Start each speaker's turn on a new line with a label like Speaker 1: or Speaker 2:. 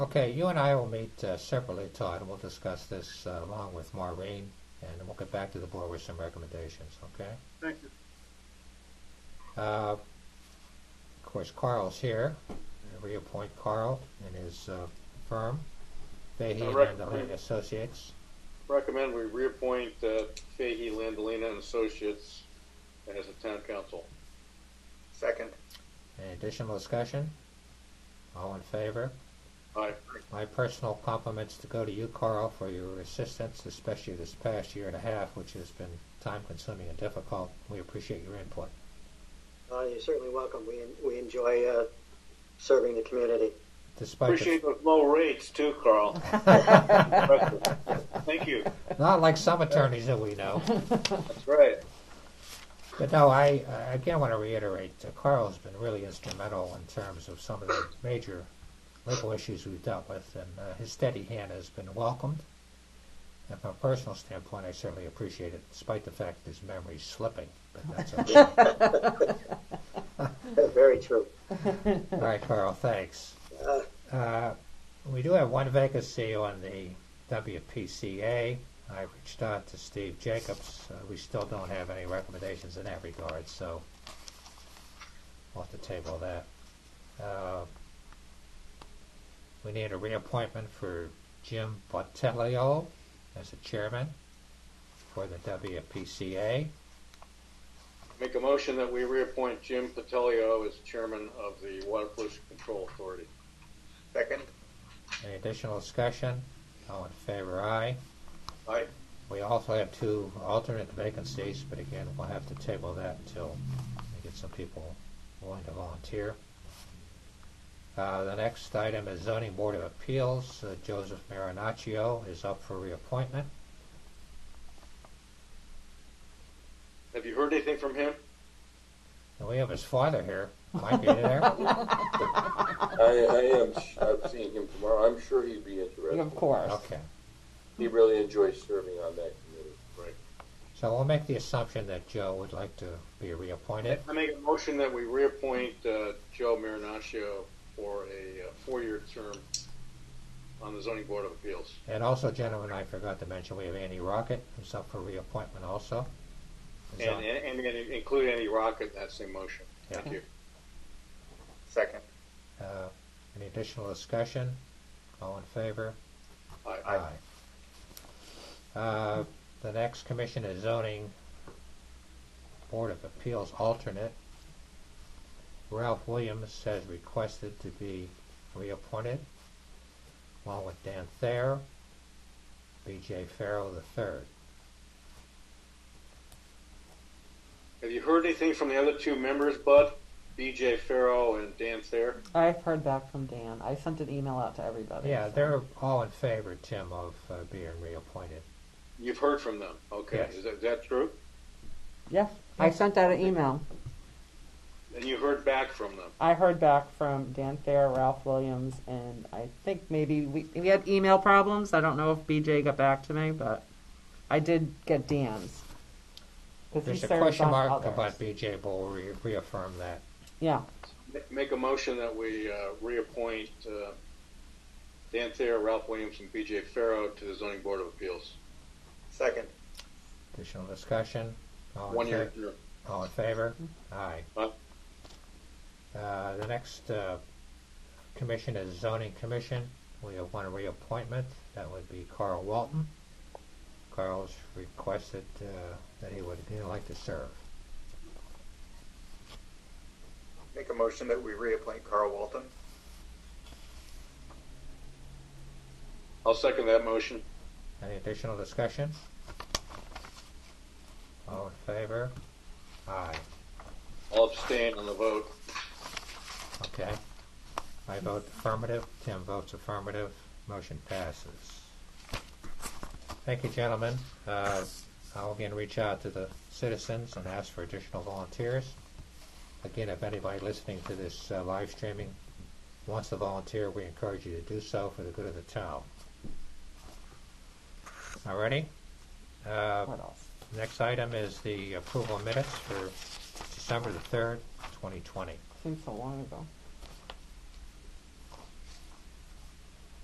Speaker 1: Okay, you and I will meet uh, separately, Todd, and we'll discuss this uh, along with Maureen, and then we'll get back to the board with some recommendations, okay?
Speaker 2: Thank you.
Speaker 1: Uh, Of course, Carl's here. Reappoint Carl and his uh, firm, Fahey
Speaker 3: I
Speaker 1: and
Speaker 3: recommend-
Speaker 1: Angelini Associates.
Speaker 3: Recommend we reappoint uh, Fahey, Landolina, and Associates as a town council.
Speaker 2: Second.
Speaker 1: Any additional discussion? All in favor?
Speaker 3: Aye.
Speaker 1: My personal compliments to go to you, Carl, for your assistance, especially this past year and a half, which has been time-consuming and difficult. We appreciate your input.
Speaker 4: Uh, you're certainly welcome. We, we enjoy uh, serving the community.
Speaker 1: Despite the
Speaker 3: Appreciate those low rates too, Carl. Thank you.
Speaker 1: Not like some attorneys that we know.
Speaker 3: That's right.
Speaker 1: But no, I, I again want to reiterate, uh, Carl's been really instrumental in terms of some of the major legal issues we've dealt with, and uh, his steady hand has been welcomed. And from a personal standpoint, I certainly appreciate it, despite the fact that his memory's slipping, but that's okay.
Speaker 4: Very true.
Speaker 1: All right, Carl, thanks.
Speaker 4: Uh,
Speaker 1: Uh, We do have one vacancy on the WPCA. I reached out to Steve Jacobs. Uh, We still don't have any recommendations in that regard, so we'll have to table that. Uh, We need a reappointment for Jim Botelio as the chairman for the WPCA.
Speaker 3: Make a motion that we reappoint Jim Patelio as chairman of the Water Pollution Control Authority.
Speaker 2: Second.
Speaker 1: Any additional discussion? All in favor, aye.
Speaker 3: Aye.
Speaker 1: We also have two alternate vacancies, but again, we'll have to table that until we get some people willing to volunteer. Uh, the next item is zoning board of appeals. Uh, Joseph Marinaccio is up for reappointment.
Speaker 3: Have you heard anything from him?
Speaker 1: And we have his father here. Mike, are you there?
Speaker 5: I, I am. I'm seeing him tomorrow. I'm sure he'd be interested.
Speaker 6: Of course.
Speaker 1: Okay.
Speaker 5: He really enjoys serving on that committee.
Speaker 1: So we'll make the assumption that Joe would like to be reappointed.
Speaker 3: I make a motion that we reappoint uh, Joe Marinaccio for a uh, four-year term on the zoning board of appeals.
Speaker 1: And also, gentlemen, I forgot to mention, we have Andy Rocket who's up for reappointment also. He's on-
Speaker 3: And, and, and include any rocket in that same motion. Thank you.
Speaker 2: Second.
Speaker 1: Uh, Any additional discussion? All in favor?
Speaker 3: Aye.
Speaker 1: Uh, The next commission is zoning Board of Appeals alternate. Ralph Williams has requested to be reappointed, along with Dan Thayer, B.J. Farrell III.
Speaker 3: Have you heard anything from the other two members, Bud? BJ Farrow and Dan Thayer?
Speaker 6: I've heard back from Dan. I sent an email out to everybody.
Speaker 1: Yeah,
Speaker 6: so.
Speaker 1: they're all in favor, Tim, of uh, being reappointed.
Speaker 3: You've heard from them. Okay.
Speaker 1: Yes.
Speaker 3: Is, that, is that true?
Speaker 6: Yeah, I sent out an email.
Speaker 3: And you heard back from them.
Speaker 6: I heard back from Dan Thayer, Ralph Williams, and I think maybe we we had email problems. I don't know if BJ got back to me, but I did get Dan's. 'Cause he
Speaker 1: There's a
Speaker 6: serves
Speaker 1: question
Speaker 6: on
Speaker 1: mark
Speaker 6: others.
Speaker 1: about B.J., but we'll re- reaffirm that.
Speaker 6: Yeah,
Speaker 3: Ma- Make a motion that we uh, reappoint uh, Dan Thayer, Ralph Williams, and BJ Farrow to the Zoning Board of Appeals.
Speaker 2: Second.
Speaker 1: Additional discussion? All in
Speaker 3: One year
Speaker 1: favor?
Speaker 3: term.
Speaker 1: All in favor? Aye.
Speaker 3: Aye.
Speaker 1: Uh, The next uh, commission is zoning commission. We have one reappointment. That would be Carl Walton. Carl's requested uh, that he would he would like to serve.
Speaker 2: Make a motion that we reappoint Carl Walton.
Speaker 3: I'll second that motion.
Speaker 1: Any additional discussion? All in favor? Aye.
Speaker 3: I'll abstain on the vote.
Speaker 1: Okay. I vote affirmative, Tim votes affirmative, motion passes. Thank you, gentlemen. Uh, I'll again reach out to the citizens and ask for additional volunteers. Again, if anybody listening to this uh, live streaming wants to volunteer, we encourage you to do so for the good of the town. All righty? Uh,
Speaker 6: what else?
Speaker 1: Next item is the approval of minutes for December the 3rd, 2020.
Speaker 6: Seems so long ago.